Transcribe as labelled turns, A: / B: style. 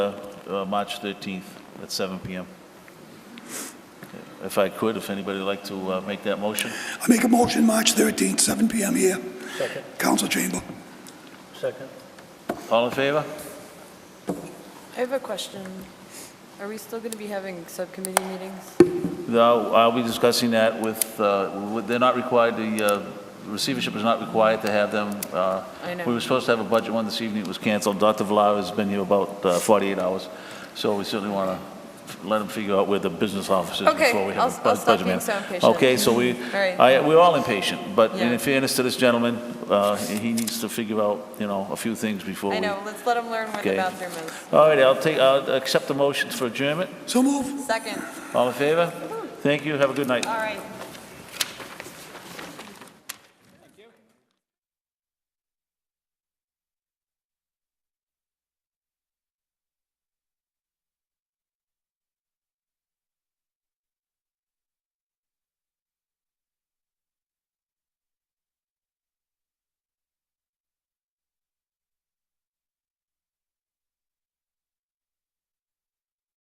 A: uh, March 13th at 7 PM. If I could, if anybody would like to uh, make that motion?
B: I make a motion, March 13th, 7 PM here,
C: Second,
B: council chamber.
C: second.
A: All in favor?
D: I have a question. Are we still going to be having subcommittee meetings?
A: No, I'll be discussing that with, uh, with- they're not required, the uh, receivership is not required to have them. uh,
D: I know.
A: We were supposed to have a budget one this evening, it was canceled. Dr. Villar has been here about uh, 48 hours, so we certainly want to let him figure out where the business office is
D: Okay,
A: before we
D: I'll-
A: have a bu- budget
D: I'll stop being
A: meeting.
D: so impatient.
A: Okay, so we,
D: right.
A: I, we're all impatient, but in
D: Yeah.
A: fairness to this gentleman, uh, he needs to figure out, you know, a few things before we.
D: I know, let's let them learn where
A: Okay.
D: the bathroom is.
A: All right, I'll take, I'll accept the motions for adjournment.
B: So move.
D: Second,
A: All in favor? Thank you, have a good night.
D: all right,